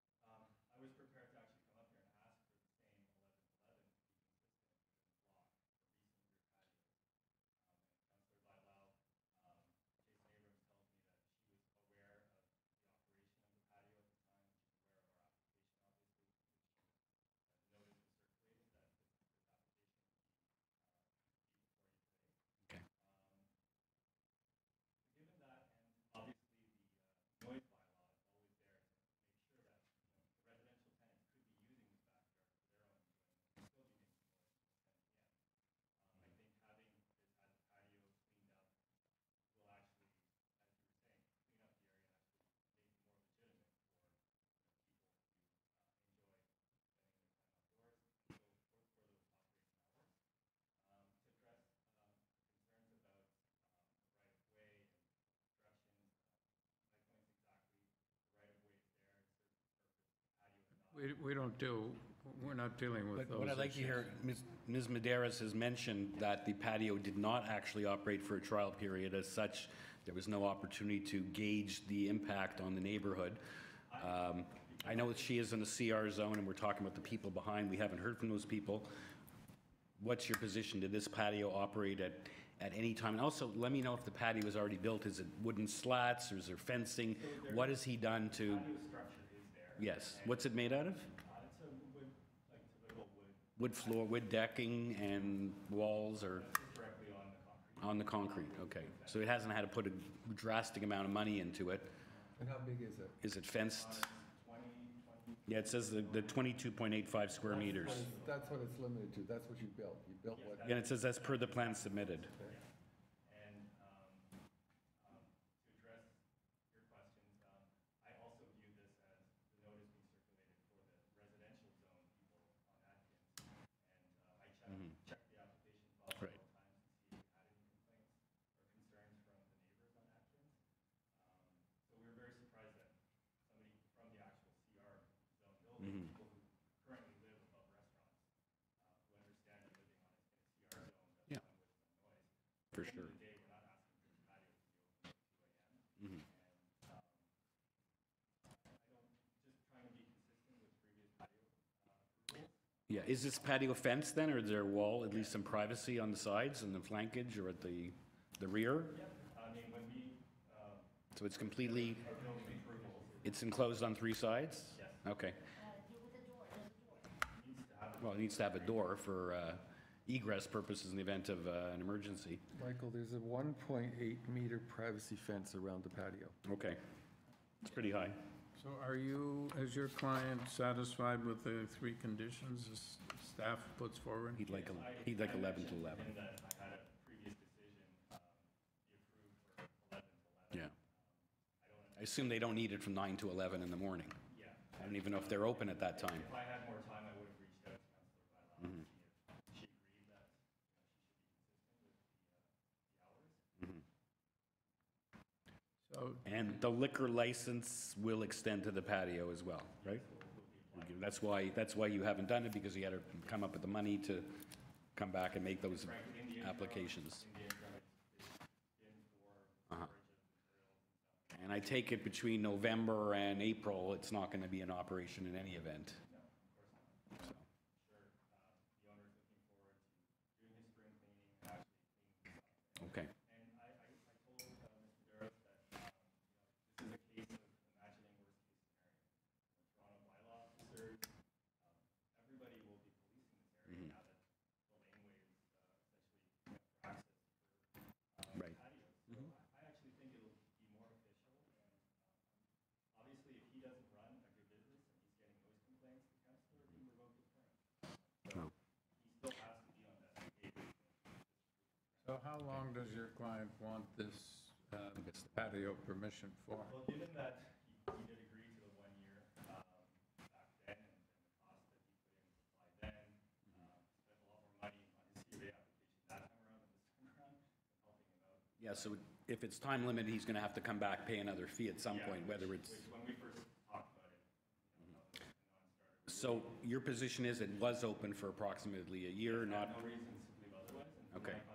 uh, Um, um, we, we don't do, we're not dealing with But those. what I'd like to issues. hear, Ms. Ms. Maderas has mentioned that the patio did not actually operate for a trial period. As such, there was no opportunity to gauge the impact on the neighborhood. Um, I know that she is in the CR zone, and we're talking about the people behind. We haven't heard from those people. What's your position? Did this patio operate at, at any time? And also, let me know if the patio was already built. Is it wooden slats, or is there fencing? What has he done to? structure is there. Yes, what's it made out of? Uh, It's a wood, like typical wood Wood floor, wood decking and walls are directly on the concrete. on the concrete, okay. So it hasn't had to put a drastic amount of money into it. And how big is it? Is it fenced? Yeah, it says the, the twenty-two point eight-five square meters. That's what it's limited to, that's what you built, you built what? And it says that's per the plan submitted. And um, um, to address your questions, um, I also view this as the notice being circulated for the residential zone people on Atkins. And uh, I checked, checked the application file several times to see if it had any complaints or concerns from the neighbors on Atkins. Um, So we were very surprised that somebody from the actual CR zone Mm-hmm. Right. building, people who currently live above restaurants, uh, who understand you're living on a CR zone, Yeah. that's why with some noise. For sure. Mm-hmm. um, uh, Yeah, is this patio fenced then, or is there a wall, at least some privacy on the sides and the flankage or at the, the rear? um, So it's completely, it's enclosed on three sides? Okay. Well, it needs to have a door for uh, egress purposes in the event of uh, an emergency. Michael, there's a 1.8 meter privacy fence around the patio. Okay. It's pretty high. So are you, is your client satisfied with the three conditions the s- staff puts forward? He'd like, a- he'd like 11 to 11. um, Yeah. Um, I assume they don't need it from 9 to 11 in the morning. Yeah. I don't even know if they're open at that time. If I had more time, I would have reached out to Counselor Bylaw and see if she agreed that So And the liquor license will extend to the patio as well, right? That's why, that's why you haven't done it, because you had to come up with the money to come back and make those applications. Uh-huh. And I take it between November and April, it's not going to be in operation in any event? So. Okay. Right. So how long does your client want this uh, patio permission for? Well, given that he he did agree to the one year um, back then and the cost that he put in to apply then, um, spent a lot more money on his CBA application that time around than this time around, helping him out. Yeah, so if it's time limited, he's going to have to come back, pay another fee at some point, whether it's. Which, when we first talked about it, you know, that was a non-starter. So your position is it was open for approximately a year, not, No reason to believe otherwise. and from Okay. my